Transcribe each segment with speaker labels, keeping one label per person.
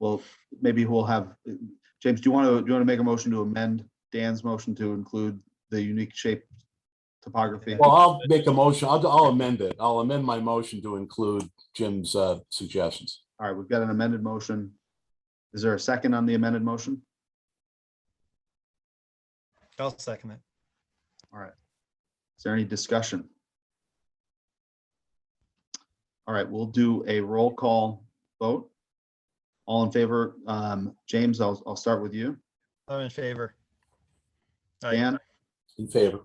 Speaker 1: well, f- maybe we'll have, James, do you want to, do you want to make a motion to amend Dan's motion to include the unique shape topography?
Speaker 2: Well, I'll make a motion. I'll, I'll amend it. I'll amend my motion to include Jim's uh, suggestions.
Speaker 1: All right, we've got an amended motion. Is there a second on the amended motion?
Speaker 3: I'll second it.
Speaker 1: Is there any discussion? All right, we'll do a roll call vote. All in favor, um, James, I'll, I'll start with you.
Speaker 3: I'm in favor. Aye.
Speaker 1: Dan,
Speaker 2: In favor?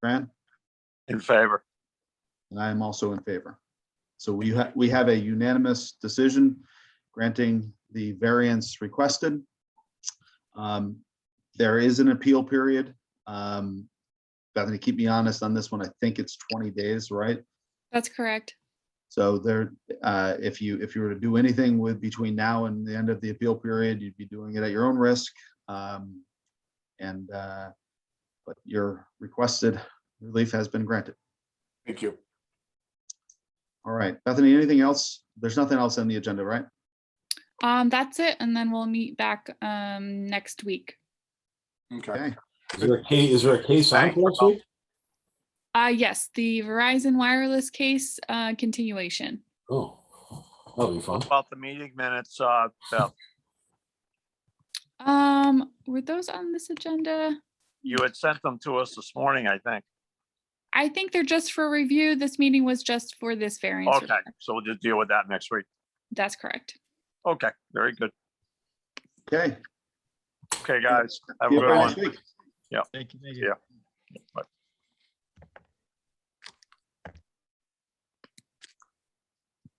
Speaker 1: Fran,
Speaker 4: In favor.
Speaker 1: and I am also in favor. So we have, we have a unanimous decision granting the variance requested. Um, There is an appeal period. Um, Bethany, keep me honest on this one. I think it's 20 days, right?
Speaker 5: That's correct.
Speaker 1: So there, uh, if you, if you were to do anything with between now and the end of the appeal period, you'd be doing it at your own risk. Um, And, uh, but your requested relief has been granted.
Speaker 2: Thank you.
Speaker 1: All right, Bethany, anything else? There's nothing else on the agenda, right?
Speaker 5: Um, that's it, and then we'll meet back um next week.
Speaker 1: Okay.
Speaker 2: Is there a case, is there a case on for next week?
Speaker 5: Uh, yes, the Verizon Wireless case uh continuation.
Speaker 2: Oh, that'll be fun.
Speaker 4: About the meeting minutes, uh, Beth,
Speaker 5: Um, were those on this agenda?
Speaker 4: you had sent them to us this morning, I think.
Speaker 5: I think they're just for review. This meeting was just for this variance.
Speaker 4: Okay,
Speaker 5: request.
Speaker 4: so we'll just deal with that next week.
Speaker 5: That's correct.
Speaker 4: Okay, very good.
Speaker 1: Okay.
Speaker 4: Okay, guys, have
Speaker 1: See
Speaker 4: a
Speaker 1: you
Speaker 4: good
Speaker 1: guys
Speaker 4: one.
Speaker 1: next week.
Speaker 3: Thank you, thank
Speaker 4: Yeah.
Speaker 3: you.